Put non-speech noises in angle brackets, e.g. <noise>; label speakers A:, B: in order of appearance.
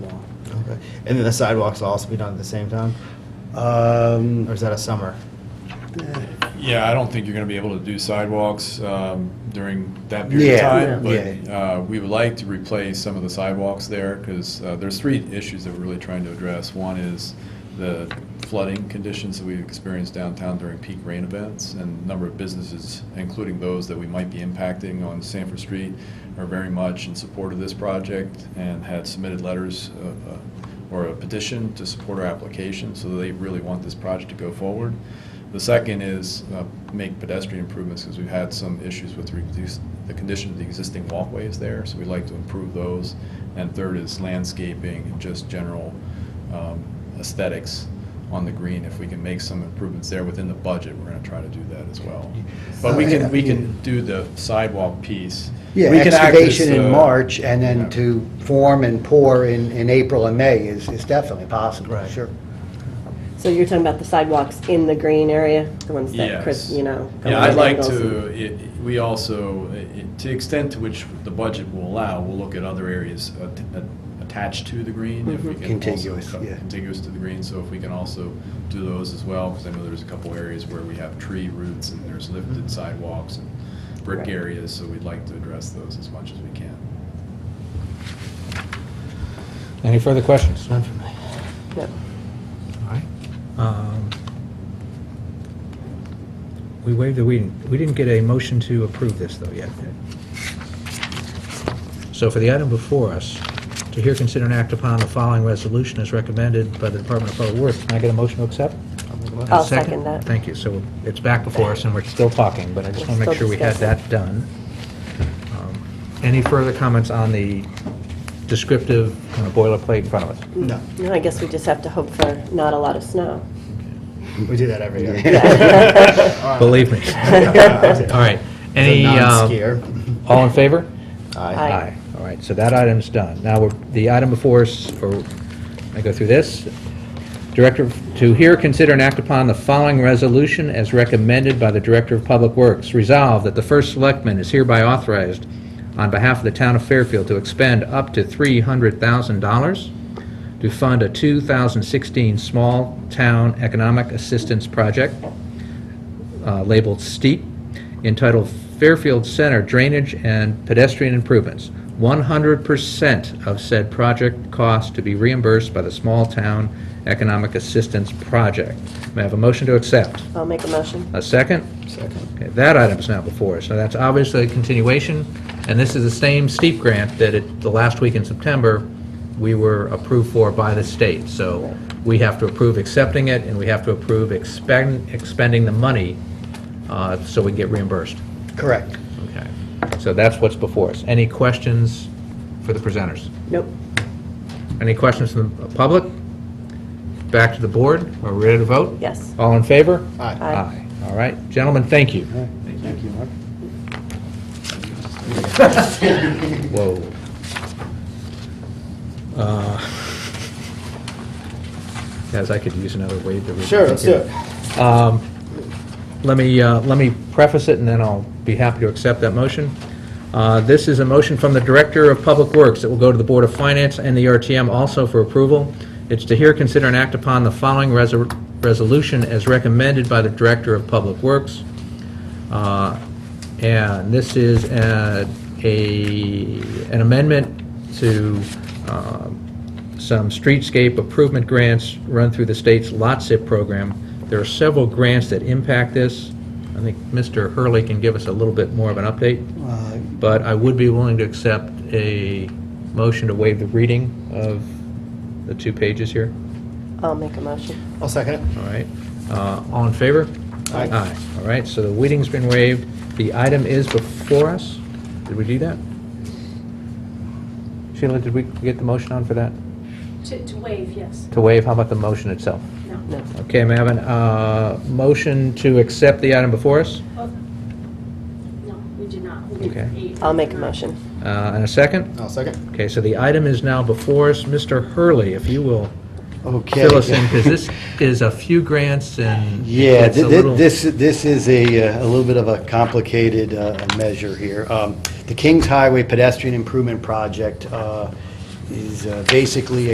A: Okay. And then the sidewalks will also be done at the same time?
B: Um,
A: Or is that a summer?
C: Yeah, I don't think you're going to be able to do sidewalks um, during that period of
B: Yeah,
C: time.
B: yeah.
C: But uh, we would like to replace some of the sidewalks there because there's three issues that we're really trying to address. One is the flooding conditions that we've experienced downtown during peak rain events. And a number of businesses, including those that we might be impacting on Sanford Street, are very much in support of this project and had submitted letters uh, uh, or a petition to support our application, so they really want this project to go forward. The second is uh, make pedestrian improvements, because we've had some issues with reduce, the condition of the existing walkways there, so we'd like to improve those. And third is landscaping and just general um, aesthetics on the green. If we can make some improvements there within the budget, we're gonna try to do that as well. But we can, we can do the sidewalk piece.
B: Yeah,
C: We can act as,
B: excavation
C: uh,
B: in March and
C: yeah.
B: then to form and pour in, in April and May is, is definitely possible,
A: Right.
B: sure.
D: So you're talking about the sidewalks in the green area, the ones that
C: Yes.
D: Chris, you know? go
C: Yeah,
D: on
C: I'd like
D: angles
C: to, it- we also, it- to the extent to which the budget will allow, we'll look at other areas at- at- attached to the green. if
D: Mm-hmm.
C: we can also
B: Contiguous,
C: cut-
B: yeah.
C: Contiguous to the green, so if we can also do those as well, because I know there's a couple areas where we have tree roots and there's lifted sidewalks and brick
D: Mm-hmm. Right.
C: areas, so we'd like to address those as much as we can.
E: Any further questions?
A: None for me.
D: and- Yep.
E: Um, We waived the, we we didn't get a motion to approve this, though, yet. So for the item before us, to hear, consider, and act upon the following resolution as recommended by the Department of Public Works, can I get a motion to accept?
D: I'll second that.
E: Thank you. So it's back before us, and we're still talking, but I just want to make sure we had that done. Um, Any further comments on the descriptive kind of boilerplate in front of us?
A: No,
D: No, I guess we just have to hope for not a lot of snow.
A: we do that every year.
E: Believe me. All right. Any, um,
A: Non-skier.
E: all in favor?
A: Aye.
D: Aye.
E: All right, so that item's done. Now, we're- the item before us, or, I go through this. Director, to hear, consider, and act upon the following resolution as recommended by the Director of Public Works. Resolve that the First Selectman is hereby authorized on behalf of the Town of Fairfield to expend up to $300,000 to fund a 2016 Small Town Economic Assistance Project uh, labeled STEEP, entitled Fairfield Center Drainage and Pedestrian Improvements. 100% of said project cost to be reimbursed by the Small Town Economic Assistance Project. May I have a motion to accept?
D: I'll make a motion.
E: A second?
A: Second.
E: Okay, That item is now before us. Now, that's obviously a continuation, and this is the same steep grant that it, the last week in September, we were approved for by the state. So we have to approve accepting it, and we have to approve expend, expending the money uh, so we get reimbursed.
B: Correct.
E: Okay. So that's what's before us. Any questions for the presenters?
D: Nope.
E: Any questions from the public? Back to the board. Are we ready to vote?
D: Yes.
E: All in favor?
A: Aye.
D: Aye.
E: All right. Gentlemen, thank you.
B: Thank you, Mark.
E: <laughs> Whoa. Uh, Guys, I could use another wave to read.
A: Sure, let's do it.
E: Um, Let me, uh, let me preface it, and then I'll be happy to accept that motion. Uh, This is a motion from the Director of Public Works that will go to the Board of Finance and the RTM also for approval. It's to hear, consider, and act upon the following resor- resolution as recommended by the Director of Public Works. Uh, And this is uh, a, an amendment to um, some streetscape improvement grants run through the state's lot SIP program. There are several grants that impact this. I think Mr. Hurley can give us a little bit more of an update,
B: Uh,
E: but I would be willing to accept a motion to waive the reading of the two pages here.
D: I'll make a motion.
A: I'll second it.
E: All right, Uh, all in favor?
A: Aye.
E: All right, so the reading's been waived. The item is before us. Did we do that? Sheila, did we get the motion on for that?
F: To, to waive, yes.
E: To waive, how about the motion itself?
F: No.
D: No.
E: Okay, may I have a uh, motion to accept the item before us?
F: Oh, No, we did not. We did
E: Okay.
F: eight and
D: I'll make a
F: nine.
D: motion.
E: Uh, And a second?
A: I'll second.
E: Okay, so the item is now before us. Mr. Hurley, if you will
B: Okay.
E: fill
B: <laughs>
E: us in, because this is a few grants and
B: Yeah,
E: it's a
B: thi-
E: little-
B: thi- this, this is a, uh, a little bit of a complicated uh, measure here. Um, The Kings Highway Pedestrian Improvement Project uh, is uh, basically